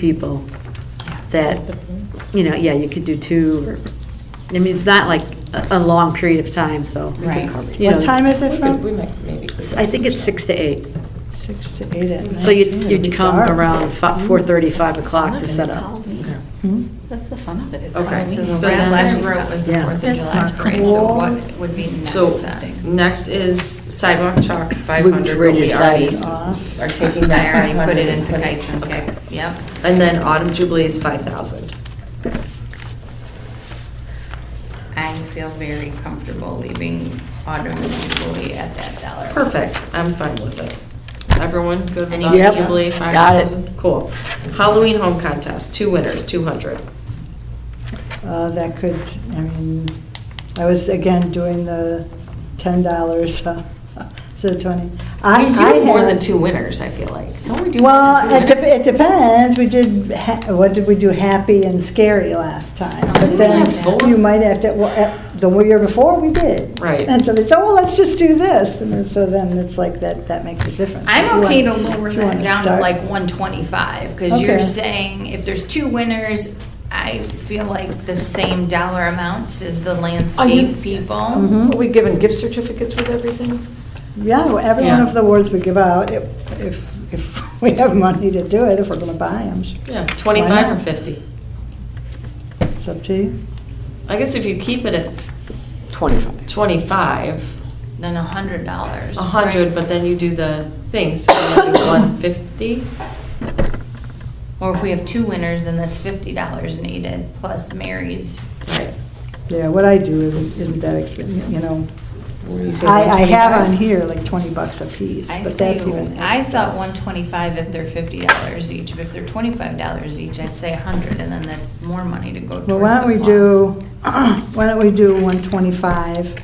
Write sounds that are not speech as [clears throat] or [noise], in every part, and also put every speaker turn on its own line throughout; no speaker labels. people that, you know, yeah, you could do two, or, I mean, it's not like a, a long period of time, so.
Right.
you know,
What time is it
We
from?
might maybe.
I think it's six to eight,
Six to eight at night.
so you'd,
Yeah, it'd
you'd
be
come
dark.
around four thirty, five o'clock to
It's
set up.
Halloween.
Hmm?
That's the fun of it, it's
Okay,
Halloween.
so the
So
last
that's
year
stuff.
was
the Yeah. Fourth
of July parade,
so what
would be next
So, next is sidewalk chalk, 500, but
already
we already
decided.
Uh,
s- are taking that. 500.
[laughs]
Okay.
yep.
And then autumn jubilee is 5,000.
I feel very comfortable leaving autumn jubilee at that dollar.
Perfect, I'm fine with it. Everyone good with
Any
autumn
Yep,
jubilee,
got it.
5,000? Cool. Halloween home contest, two winners, 200.
Uh, That could, I mean, I was again doing the ten dollars, [laughs] so twenty. I
We
I
do more
had-
than two winners, I feel like. Don't we do more than
Well, it
two
dep-
winners?
it depends, we did, ha- what did we do, happy and scary last time? But
Something
then
like that.
you might have to, well, at- the one year before, we did.
Right.
And somebody said, well, let's just do this, and then, so then it's like, that, that makes a difference. If
I'm
you
okay to
want-
lower
if you
that
wanna
down to
start-
like 125, because you're
Okay.
saying if there's two winners, I feel like the same dollar amounts as the landscape people.
Mhm.
Are we giving gift certificates with everything?
Yeah, well, every one
Yeah.
of the awards we give out, if, if, if [laughs] we have money to do it, if we're gonna buy them,
Yeah, 25 or
not?
50.
it's up to you.
I guess if you keep it at 25, 25,
Then $100.
A hundred,
right?
but then you do the thing, so one fifty?
Or if we have two winners, then that's $50 needed, plus Mary's.
Right.
Yeah, what I do isn't, isn't that expensive, you know.
You say
I, I have
125?
on here like twenty bucks a piece,
I
but
say,
that's even.
I
extra.
thought one twenty-five if they're fifty dollars each, but if they're twenty-five dollars each, I'd say a hundred, and then that's more money to go towards the
Well, why don't we
plow.
do, [clears throat] why don't we do 125?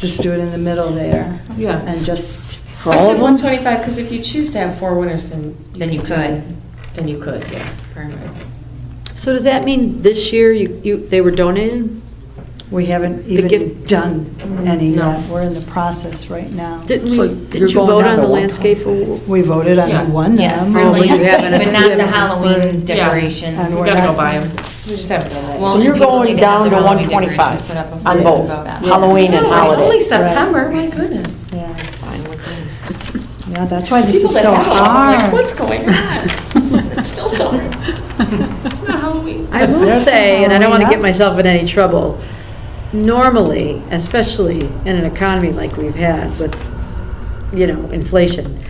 Just do it in the middle there.
Yeah.
And just, for all
Said
of
one
them?
twenty-five, because if you choose to have four winners, then.
Then you
do-
could.
Then you could, yeah.
So does that mean this year you, you, they were donated?
We haven't
give-
even done any
No.
yet. We're in the process right now.
Didn't
So
we,
you're
didn't you
going
vote
down
on
to
the
one.
landscape award?
We voted
Yeah.
on one
Yeah,
of
for
Oh,
them.
but you
landscape,
haven't-
but not
Yeah.
the Halloween decorations.
And
We
we're
gotta
not-
go buy them. We just haven't done that.
Well,
So
and
you're
people
going
need to have
down
their
to
Halloween decorations
125
put up before
on
they
both,
go out.
Halloween and
No, It's only
holiday.
September, my goodness.
Yeah. Yeah, that's why this
People
is
that
so
have them, I'm like,
hard.
what's going
[laughs]
on? It's- It's still summer. It's not Halloween.
I will
There's some
say, and I don't want to get
Halloween up.
myself in any trouble, normally, especially in an economy like we've had with, you know, inflation,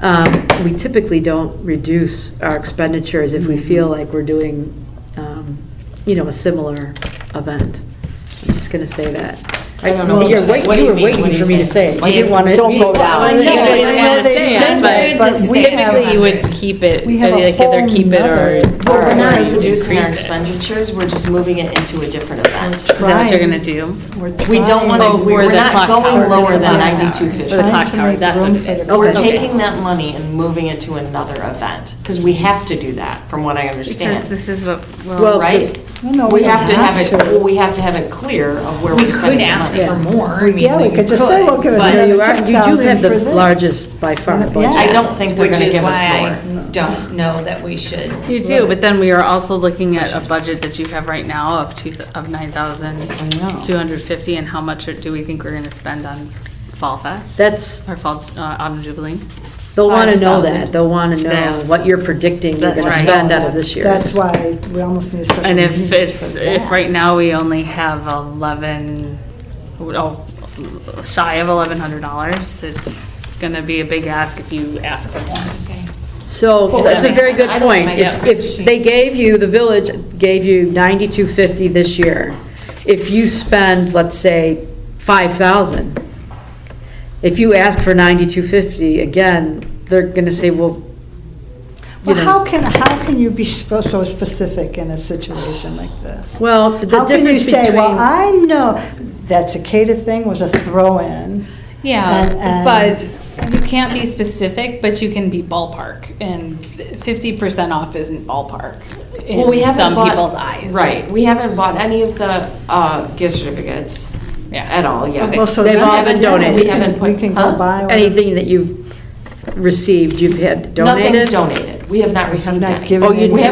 um, we typically don't reduce our expenditures if we
Mm-hmm.
feel like we're doing, um, you know, a similar event. I'm just going to say that.
I don't know what
You're
you're saying.
wait-
What do
You
you
were
mean?
waiting
What do you
for me to
say?
say it.
Like,
You didn't want to.
don't go down.
I know,
You
I
didn't
know
want to
they
say
said
it,
that,
but-
but we
Typically, you would
have-
keep it,
we have
either
a
either
whole
keep it or.
nother-
But we're not
or you
reducing our
increase it.
expenditures, we're just moving it into a different event.
Is that what you're
Trying.
gonna do?
We're
We don't
trying-
want to,
Oh, for
we're
the
not
clock
going
tower.
For
lower than
the clock
ninety-two
For the
fifty.
Trying
clock
to
tower,
make
that's
room
what it
for
is.
the-
We're
Okay.
taking that money and moving it to another event, because we have to do that, from what I
Because
understand,
this is what,
Well,
well,
right?
Well, no,
We
we
have to
don't
have
have
it,
to.
well, we have to have it clear of where
We
we're
could
spending
ask
the
for
money.
more. I mean,
Yeah, we could just say, well, give us
but-
No,
another
you are, you do
10,000
have
for
the
this.
largest by far
Yeah.
budget.
I don't think they're
Which
gonna
is
give us
why
more.
I Don't know that we should.
you do, but then we are also looking at a budget that you have right now of two, of nine thousand two hundred fifty, and how much do we think we're gonna spend on Fall Fest?
That's,
Or Fall, uh, Autumn Jubilee?
they'll want to know
5,000.
that. They'll want to know
Yeah.
what you're predicting you're
That's
going to
right.
spend out of this year.
That's why we almost need a special
[laughs] And
meeting
if
just
it's,
uh,
for
if
that.
right now we only have eleven, oh, shy of eleven hundred dollars, it's gonna be a big ask if you ask for more.
Okay.
So
Well,
that's a
that
very
makes
good
sense.
point.
That's
If
my
if
spreadsheet.
they gave you, the village gave you 9250 this year. If you spend, let's say, 5,000, if you ask for 9250, again, they're going to say, well, you
Well,
know,
how can, how can you be so so specific in a situation like this?
well, the
How can you
difference
say, well,
between,
I know, that cicada thing was a throw-in. And-
Yeah,
and-
but you can't be specific, but you can be ballpark, and fifty percent off isn't ballpark
Well, we
in
haven't
some
bought-
people's eyes.
Right, we haven't bought any of the uh, gift certificates
Yeah.
at all yet.
Okay.
Well, so
They've
then-
all been
we can-
donated.
We can, we can
Huh?
go buy. one.
anything that you've received, you've had donated?
Nothing's donated.
We have not received
not
any.
given
Oh, you-
We